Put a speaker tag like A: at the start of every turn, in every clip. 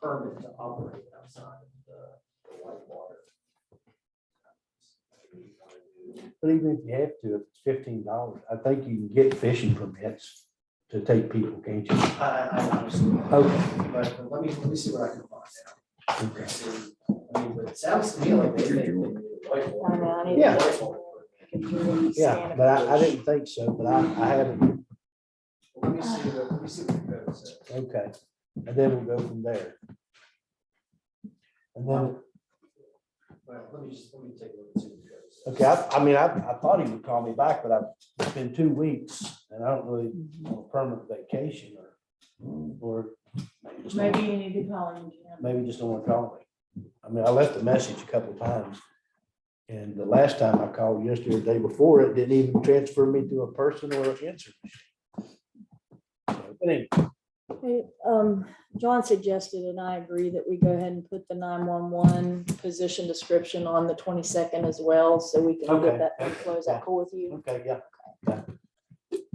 A: permit to operate outside of the the white water.
B: But even if you have to, if it's fifteen dollars, I think you can get fishing permits to take people, can't you?
A: I, I honestly,
B: Okay,
A: but let me, let me see what I can find out.
B: okay.
A: I mean, but it sounds to me like they think. they need a white
C: I know, I
A: water-
C: need
B: a Yeah.
A: white water permit.
B: Yeah, but I, I didn't think so, but I, I haven't,
A: Let me see, what- let me see what the code says.
B: okay. And then we'll go from there. And then,
A: Well, let me just, let me take a look and see what the code says.
B: okay, I, I mean, I, I thought he would call me back, but I've, it's been two weeks and I don't really want a permanent vacation or, or maybe just don't-
C: Maybe you need to call him, Jim.
B: maybe just don't want to call me. I mean, I left a message a couple times. And the last time I called yesterday or the day before, it didn't even transfer me to a person or an answer. machine. So, but anyway,
D: Hey, Um, John suggested, and I agree, that we go ahead and put the nine-one-one position description on the twenty-second as well, so we can
B: Okay.
D: get that and close. That cool with you?
B: Okay, yeah,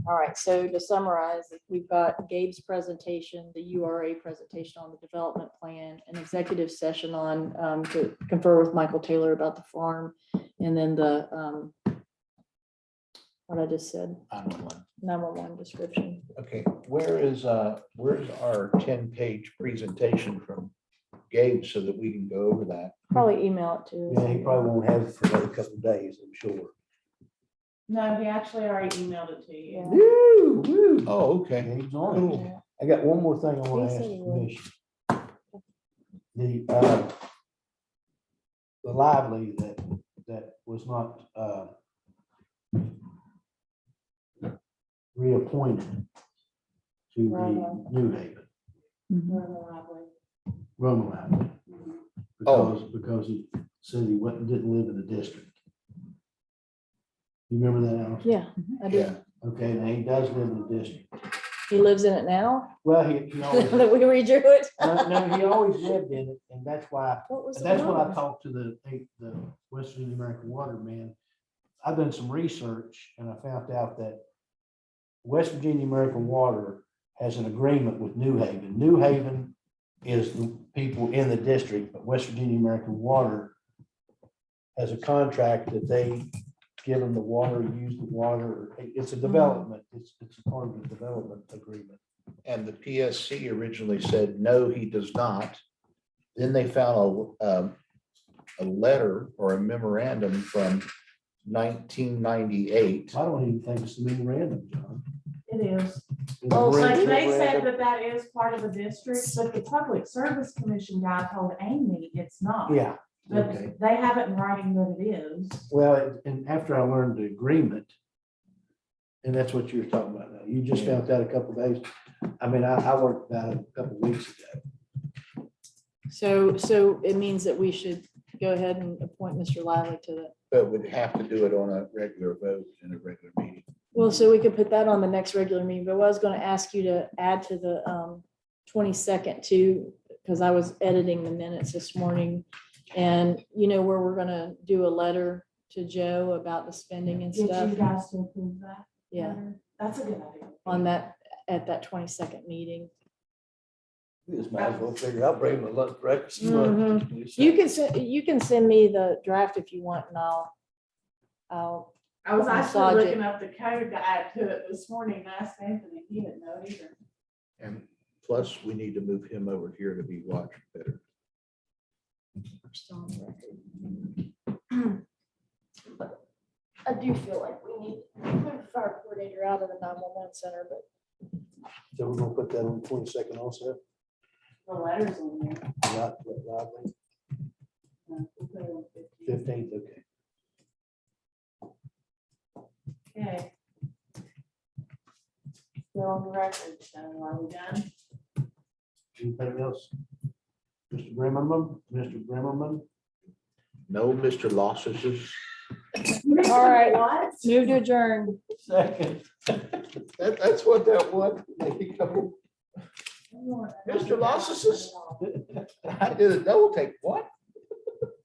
D: All right, so to summarize, we've got Gabe's presentation, the URA presentation on the development plan, an executive session on, um, to confer with Michael Taylor about the farm, and then the, um, what I just said, nine-one-one description.
E: Okay, where is, uh, where's our ten-page presentation from Gabe so that we can go over that?
D: Probably email it to.
B: yeah, he probably won't have it for another couple of days, I'm sure.
C: No, he actually already emailed it to you.
D: Yeah.
B: Woo, woo.
E: Oh, okay.
B: Yeah, he's on it.
E: Cool.
B: I got one more thing I want to
D: He
B: ask
D: said
B: the
D: he would.
B: commission. The, uh, the lively that, that was not, uh, reappointed to
C: Romo.
B: the New Haven,
D: Mm-hmm.
C: We're in the library.
B: Romo Lively.
E: Oh.
B: Because, because he said he wasn't, didn't live in the district. You remember that, Allison?
D: Yeah, I do.
E: Yeah,
B: Okay, now he does live in the district.
D: He lives in it now
B: Well, he, he always,
D: that we redrew it.
B: no, no, he always lived in it, and that's why
D: What was
B: But
D: the
B: That's what I
D: problem?
B: talked to the, eight- the West Virginia American Water man. I've done some research and I found out that West Virginia American Water has an agreement with New Haven. New Haven is the people in the district, but West Virginia American Water has a contract that they give them the water, use the water. It's a development, it's, it's a part of the development agreement.
E: and the PSC originally said, no, he does not. Then they found a, um, a letter or a memorandum from nineteen ninety-eight.
B: I don't even think it's a memorandum, John.
C: It is.
B: It's a
D: Oh, so
C: Like
B: memorandum.
C: they said that that is part of the district, but the Public Service Commission guy told Amy it's not.
B: Yeah. okay.
C: But they have it in writing that it is.
B: Well, and- and after I learned the agreement, and that's what you were talking about now, you just found out a couple days. I mean, I, I worked out a couple weeks ago.
D: So, so it means that we should go ahead and appoint Mr. Lively to the,
E: But would have to do it on a regular vote in a regular meeting.
D: well, so we could put that on the next regular meeting, but I was gonna ask you to add to the um twenty-second too, because I was editing the minutes this morning. And you know where we're gonna do a letter to Joe about the spending and
C: Did you
D: stuff?
C: guys to approve that?
D: Yeah,
C: letter? That's a good idea.
D: on that, at that twenty-second meeting.
B: You just might as well figure out, bring him a lunch breakfast.
D: Mhm. You can, se- you can send me the draft if you want and I'll, I'll
C: I was
D: Massage
C: actually
D: it.
C: looking up the code to add to it this morning. I asked Anthony, he didn't know either.
E: And plus, we need to move him over here to be watched better.
D: We're still on the record. But I do feel like we need to move fire coordinator out of the nine-one-one center, but
B: So we're gonna put that on twenty-second also.
C: The letters on there. uh, we'll put it on 15.
B: Fifteenth, okay.
C: Okay. Still on the record, so are we done?
B: Anything else? Mr. Brimmerman, Mr. Brimmerman,
E: No, Mr. Losses.
D: All right.
C: What?
D: move to adjourn.
B: second.
E: That, that's what that was. Mr. Losses is- I did a double take. What?